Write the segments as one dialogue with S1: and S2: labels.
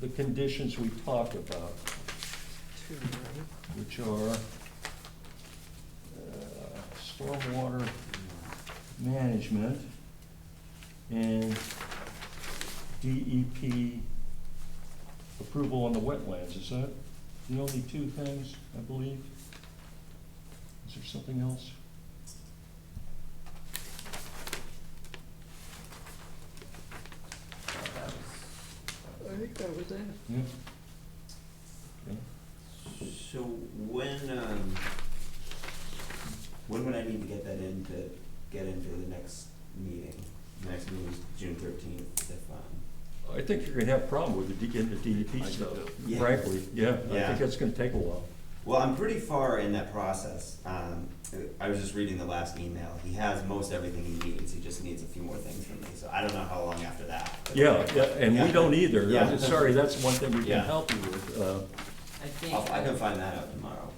S1: the conditions we talked about,
S2: Two, right?
S1: which are uh, stormwater management and DEP approval on the wetlands, is that the only two things, I believe? Is there something else?
S2: I think that was it.
S1: Yeah? Okay.
S3: So when, um, when would I need to get that in to get into the next meeting? The next meeting is June thirteenth, if, um,
S1: I think you're gonna have a problem with the D- getting the DEP
S4: I do
S1: stuff,
S3: Yeah.
S1: frankly, yeah, I
S3: Yeah.
S1: think that's gonna take a while.
S3: well, I'm pretty far in that process. Um, I was just reading the last email. He has most everything he needs. He just needs a few more things from me, so I don't know how long after that. but-
S1: Yeah, yeah, and we
S3: Yeah.
S1: don't either, I'm
S3: Yeah.
S1: just sorry, that's one thing we can
S3: Yeah.
S1: help you with, uh,
S5: I think
S3: I'll, I can find that out tomorrow.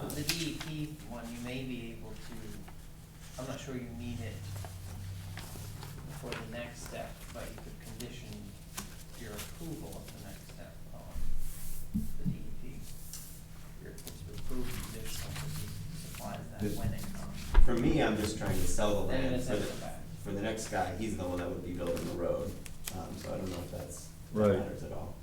S3: Um,
S5: the DEP one, you may be able to, I'm not sure you need it for the next step, but you could condition your approval of the next step on the E DEP. You're supposed to approve conditional because he supplies that
S3: This- Oh,
S5: when it comes.
S3: For me, I'm just trying to sell the
S5: Then
S3: land
S5: it's
S3: for the,
S5: setback.
S3: for the next guy. He's the one that would be building the road. Um, so I don't know if that's, that
S1: Right.
S3: matters at all.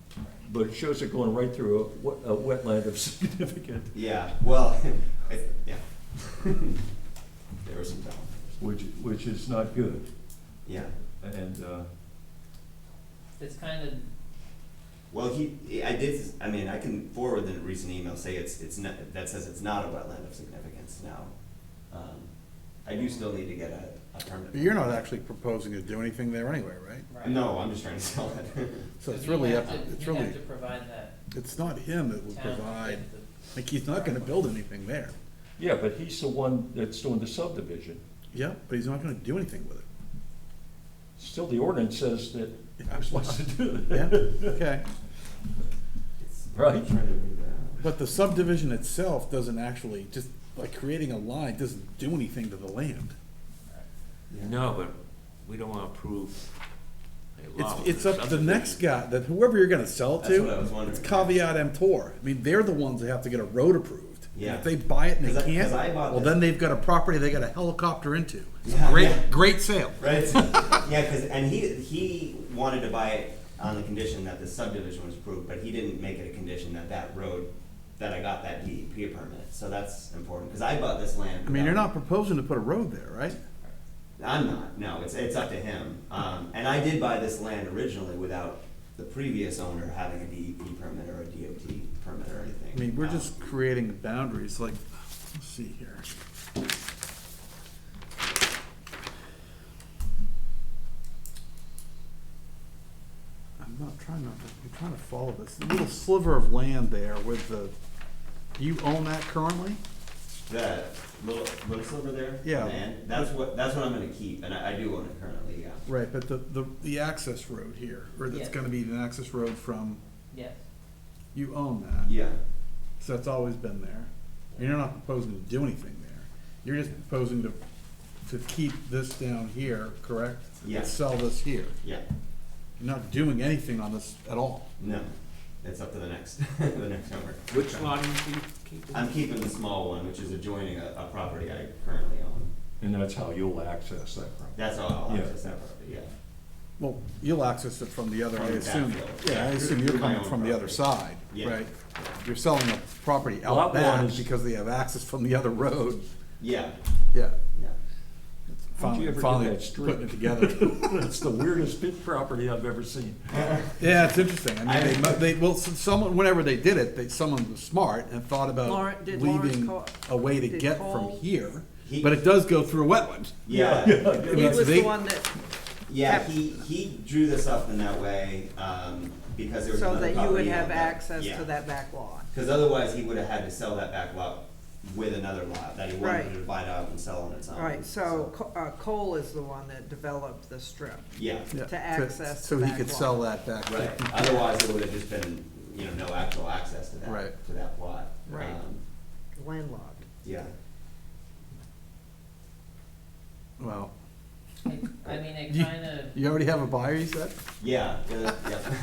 S1: but it shows it going right through a, wet- a wetland of significant,
S3: Yeah, well, I, yeah. There were some down.
S1: which, which is not good,
S3: Yeah,
S1: and, uh,
S5: It's kind of,
S3: well, he, I did, I mean, I can forward the recent email, say it's, it's not, that says it's not a wetland of significance now. Um, I do still need to get a, a permit.
S4: But you're not actually proposing to do anything there anyway, right?
S5: right.
S3: No, I'm just trying to sell it.
S4: So it's
S5: You
S4: really,
S5: have
S4: up.
S5: to-
S4: it's
S5: You
S4: really,
S5: have to provide that
S4: it's not him that will
S5: town with
S4: provide,
S5: the-
S4: like, he's not gonna build anything there.
S1: yeah, but he's the one that's doing the subdivision.
S4: Yeah, but he's not gonna do anything with it.
S1: Still, the ordinance says that
S4: Yeah.
S1: we're supposed to do
S4: Yeah,
S1: that.
S4: okay.
S3: It's- I'm
S1: Right.
S3: trying to read that.
S4: But the subdivision itself doesn't actually, just like creating a line doesn't do anything to the land.
S3: Yeah.
S6: No, but we don't wanna approve a
S4: It's,
S6: law. with
S4: it's
S6: a
S4: up to the next
S6: subdivision.
S4: guy, that whoever you're gonna sell
S3: That's what I
S4: to,
S3: was wondering.
S4: it's caveat emptor. I mean, they're the ones that have to get a road approved. And
S3: Yeah.
S4: If they buy it and they
S3: 'Cause I- 'cause
S4: can't,
S3: I bought
S4: well,
S3: this-
S4: then they've got a property they gotta helicopter into. It's a
S3: Yeah,
S4: Great,
S3: yeah.
S4: great sale.
S3: Right. yeah, because and he he wanted to buy it on the condition that the subdivision was approved, but he didn't make it a condition that that road that I got that DEP permit. So that's important because I bought this land.
S4: I mean, you're
S3: without-
S4: not proposing to put a road there, right?
S3: I'm not. No, it's it's up to him. Um, and I did buy this land originally without the previous owner having a DEP permit or a DOT permit or anything.
S4: I mean, we're
S3: Um,
S4: just creating boundaries, like, let's see here. I'm not trying not to, I'm trying to follow this, the little sliver of land there with the, do you own that currently?
S3: the little little silver there.
S4: Yeah.
S3: Man, that's what that's what I'm going to keep, and I, I do own it currently. Yeah.
S4: Right, but the, the, the access road here, or that's
S5: Yeah.
S4: gonna be an access road from,
S5: Yes,
S4: you own that.
S3: Yeah.
S4: So it's always been there. You're not proposing to do anything there. You're just proposing to, to keep this down here, correct?
S3: Yeah.
S4: Sell this here.
S3: Yeah.
S4: You're not doing anything on this at all.
S3: No, it's up to the next, the next owner.
S6: Which lot are you keep- keeping?
S3: I'm keeping the small one, which is adjoining a, a property I currently own.
S1: And that's how you'll access that property.
S3: That's all I'll
S1: Yeah.
S3: access that property, yeah.
S4: Well, you'll access it from the other, I
S3: From the
S4: assume.
S3: backfield.
S4: Yeah, I
S3: Yeah,
S4: assume
S3: through-
S4: you're
S3: through my
S4: coming
S3: own
S4: from the other side,
S3: property. Yeah.
S4: right? You're selling a property out
S1: Lot one
S4: back
S1: is-
S4: because they have access from the other road.
S3: Yeah,
S4: Yeah.
S3: yeah.
S1: How'd you
S4: Finally,
S1: ever do
S4: finally
S1: that street?
S4: putting it together.
S1: That's the weirdest bit property I've ever seen.
S4: Yeah, it's interesting. I
S3: I-
S4: mean, they, mo- they, well, s- someone, whenever they did it, they, someone was smart and thought about
S2: Lawrence- did Lawrence
S4: leaving
S2: call-
S4: a way to
S2: did
S4: get from
S2: Cole-
S4: here,
S3: He-
S4: but it does go through a wetland.
S3: Yeah,
S4: I
S2: He
S4: mean,
S2: was
S4: they-
S2: the one that,
S3: yeah, he, he drew this up in that way, um, because there was
S2: so
S3: another property.
S2: that you would
S3: on
S2: have
S3: that-
S2: access
S3: yeah.
S2: to that back lot.
S3: Cause otherwise he would've had to sell that back lot with another lot that he wanted
S2: Right.
S3: to divide up and sell on its own.
S2: All right, so Co- uh, Cole is the one that developed the strip.
S3: Yeah,
S4: Yeah,
S2: To access
S4: So
S2: the
S4: he
S2: back
S4: could
S2: lot.
S4: sell that back.
S3: right, otherwise it would've just been, you know, no actual access to that,
S4: Right.
S3: to that plot.
S2: Right.
S3: Um,
S2: Landlocked.
S3: Yeah,
S4: Well,
S5: I I mean, it
S4: You-
S5: kind of.
S4: you already have a buyer, you said?
S3: yeah, uh, yeah.